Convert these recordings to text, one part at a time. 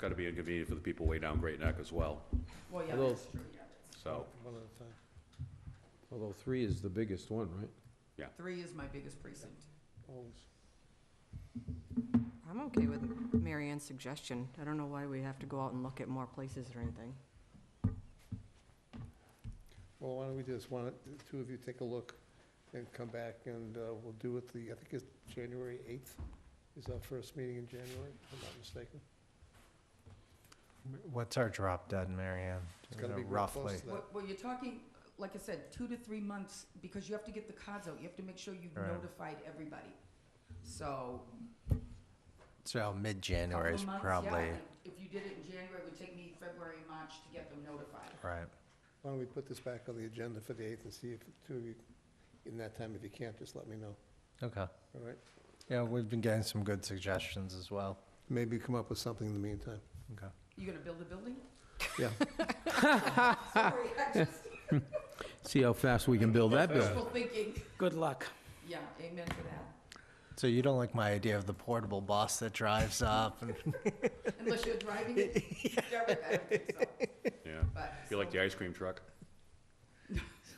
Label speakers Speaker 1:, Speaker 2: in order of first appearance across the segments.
Speaker 1: gotta be inconvenient for the people way down Great Neck as well,
Speaker 2: Well, yeah,
Speaker 3: Although-
Speaker 2: that's true, yeah, that's,
Speaker 1: so,
Speaker 3: One at a time. Although three is the biggest one, right?
Speaker 2: three is my biggest precinct.
Speaker 3: Always.
Speaker 4: I'm okay with Mary Ann's suggestion. I don't know why we have to go out and look at more places or anything.
Speaker 3: Well, why don't we just, why don't the two of you take a look and come back and uh, we'll do it the, I think it's January 8th is our first meeting in January, if I'm not mistaken.
Speaker 5: What's our drop dead, Marianne?
Speaker 3: It's gotta be real close
Speaker 5: roughly.
Speaker 3: to that.
Speaker 2: Well, well, you're talking, like I said, two to three months, because you have to get the cards out, you have to make sure you've
Speaker 5: Right.
Speaker 2: notified everybody. So,
Speaker 5: So oh,
Speaker 2: couple
Speaker 5: mid-January
Speaker 2: of
Speaker 5: is
Speaker 2: months, yeah,
Speaker 5: probably
Speaker 2: and if you did it in January, it would take me February, March to get them notified.
Speaker 5: right.
Speaker 3: Why don't we put this back on the agenda for the 8th and see if the two of you, in that time, if you can't, just let me know,
Speaker 5: Okay.
Speaker 3: all right?
Speaker 5: Yeah, we've been getting some good suggestions as well.
Speaker 3: Maybe come up with something in the meantime.
Speaker 2: You gonna build a building?
Speaker 3: Yeah.
Speaker 2: Sorry, I just,
Speaker 6: See how fast we can build that building.
Speaker 2: wishful thinking,
Speaker 6: Good luck.
Speaker 2: yeah, amen to that,
Speaker 5: So you don't like my idea of the portable bus that drives up and
Speaker 2: unless you're driving it, Derek, I don't think so,
Speaker 1: yeah.
Speaker 2: but.
Speaker 1: You like the ice cream truck?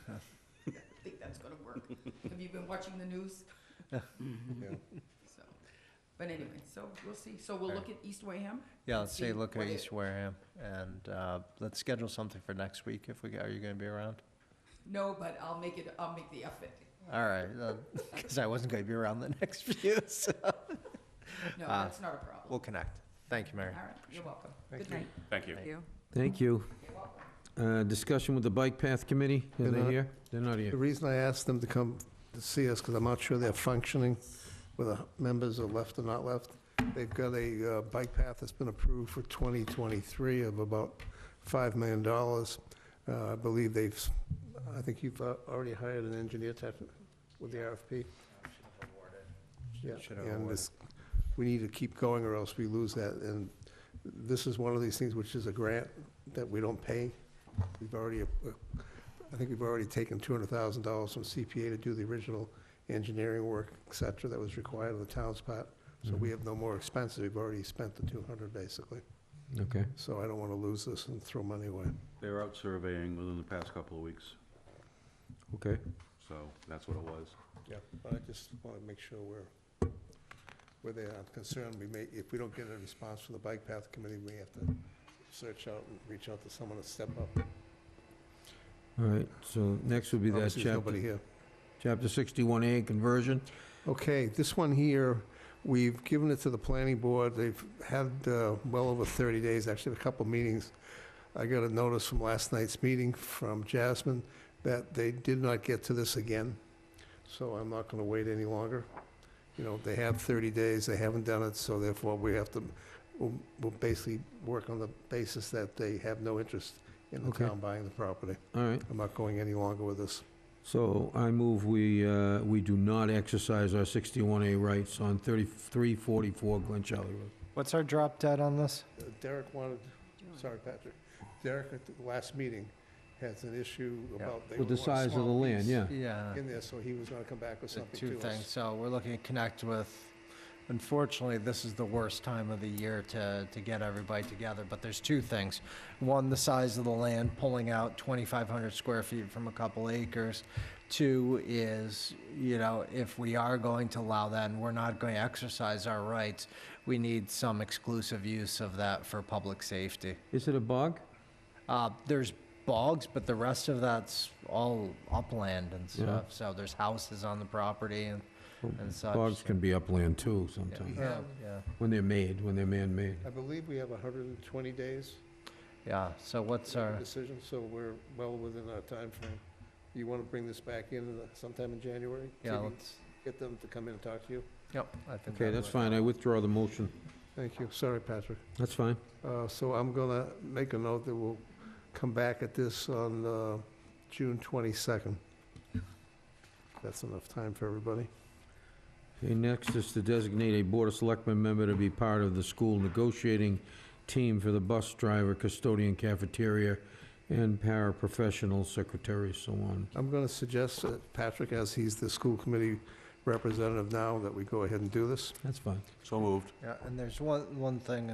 Speaker 2: I think that's gonna work. Have you been watching the news?
Speaker 3: Yeah.
Speaker 2: So, but anyway, so we'll see. So we'll look at East Wareham?
Speaker 5: yeah,
Speaker 2: and
Speaker 5: let's say
Speaker 2: see
Speaker 5: look at
Speaker 2: what it-
Speaker 5: East Wareham and uh, let's schedule something for next week if we are you going to be around?
Speaker 2: No, but I'll make it, I'll make the effort.
Speaker 5: All right, because I wasn't going to be around the next few. So
Speaker 2: No,
Speaker 5: Ah,
Speaker 2: that's not a problem.
Speaker 5: we'll connect. Thank you, Mary.
Speaker 2: All right, you're welcome.
Speaker 3: Thank
Speaker 2: Good
Speaker 3: you.
Speaker 2: night.
Speaker 1: Thank you.
Speaker 4: Thank you.
Speaker 6: Thank you.
Speaker 2: You're welcome.
Speaker 6: Uh, Discussion with the Bike Path Committee, are
Speaker 3: They're
Speaker 6: they
Speaker 3: not-
Speaker 6: here? They're not
Speaker 3: The
Speaker 6: here.
Speaker 3: reason I asked them to come to see us, because I'm not sure they're functioning, whether members are left or not left. They've got a uh, bike path that's been approved for 2023 of about $5 million. Uh, I believe they've, s- I think you've uh, already hired an engineer tech with the RFP. Yeah,
Speaker 5: Should have
Speaker 3: and
Speaker 5: awarded.
Speaker 3: this, we need to keep going or else we lose that. And this is one of these things which is a grant that we don't pay. We've already, uh, I think we've already taken two hundred thousand dollars from CPA to do the original engineering work, et cetera, that was required on the town's part.
Speaker 6: Mm-hmm.
Speaker 3: So we have no more expenses. We've already spent the two hundred, basically.
Speaker 6: Okay.
Speaker 3: So I don't want to lose this and throw money away.
Speaker 1: They were out surveying within the past couple of weeks,
Speaker 6: Okay.
Speaker 1: so that's what it was.
Speaker 3: Yeah, but I just want to make sure we're, we're there. I'm concerned we may, if we don't get a response from the Bike Path Committee, we have to search out and reach out to someone to step up.
Speaker 6: All right, so next would be that
Speaker 3: Obviously, there's nobody
Speaker 6: chapter,
Speaker 3: here.
Speaker 6: chapter 61A conversion.
Speaker 3: Okay, this one here, we've given it to the planning board. They've had uh, well over 30 days, actually a couple meetings. I got a notice from last night's meeting from Jasmine that they did not get to this again, so I'm not going to wait any longer. You know, they have 30 days, they haven't done it, so therefore we have to, we'll we'll basically work on the basis that they have no interest in the
Speaker 6: Okay.
Speaker 3: town buying the property.
Speaker 6: All right,
Speaker 3: I'm not going any longer with this.
Speaker 6: so I move we, uh, we do not exercise our 61A rights on 3344 Glen Charlie Road.
Speaker 5: What's our drop dead on this?
Speaker 3: Uh, Derek wanted Sorry, Patrick. Derek, at the last meeting, has an issue
Speaker 5: Yeah.
Speaker 3: about. they
Speaker 6: With the
Speaker 3: would want a
Speaker 6: size of the
Speaker 3: small
Speaker 6: land,
Speaker 3: piece
Speaker 6: yeah.
Speaker 5: Yeah.
Speaker 3: In there, so he was gonna come back with
Speaker 5: the
Speaker 3: something
Speaker 5: two
Speaker 3: to
Speaker 5: things.
Speaker 3: us.
Speaker 5: So we're looking to connect with, unfortunately, this is the worst time of the year to, to get everybody together, but there's two things. One, the size of the land, pulling out 2,500 square feet from a couple acres. Two is, you know, if we are going to allow that and we're not going to exercise our rights, we need some exclusive use of that for public safety.
Speaker 6: Is it a bog?
Speaker 5: Uh, there's bogs, but the rest of that's all upland and
Speaker 6: Yeah.
Speaker 5: stuff. So there's houses on the property and, and such.
Speaker 6: Bogs
Speaker 5: so-
Speaker 6: can be upland too
Speaker 5: Yeah, we
Speaker 6: sometimes,
Speaker 5: have- yeah,
Speaker 6: when they're made, when they're man-made.
Speaker 3: I believe we have hundred and twenty days
Speaker 5: yeah. So what's
Speaker 3: to make a
Speaker 5: our,
Speaker 3: decision, so we're well within our time frame. You wanna bring this back in uh, sometime in January? See if
Speaker 5: yeah,
Speaker 3: you can
Speaker 5: let's,
Speaker 3: Get them to come in and talk to you?
Speaker 5: yep, I think.
Speaker 6: Okay,
Speaker 5: that
Speaker 6: that's
Speaker 5: would-
Speaker 6: fine, I withdraw the motion.
Speaker 3: Thank you. Sorry, Patrick.
Speaker 6: That's fine.
Speaker 3: Uh, so I'm gonna make a note that we'll come back at this on, uh, June twenty-second. That's enough time for everybody.
Speaker 6: Okay, next is to designate a Board of Selectmen member to be part of the school negotiating team for the bus driver, custodian cafeteria, and paraprofessional secretary, so on.
Speaker 3: I'm going to suggest that Patrick, as he's the school committee representative now, that we go ahead and do this.
Speaker 6: That's fine.
Speaker 1: So moved.
Speaker 5: Yeah, and there's one, one thing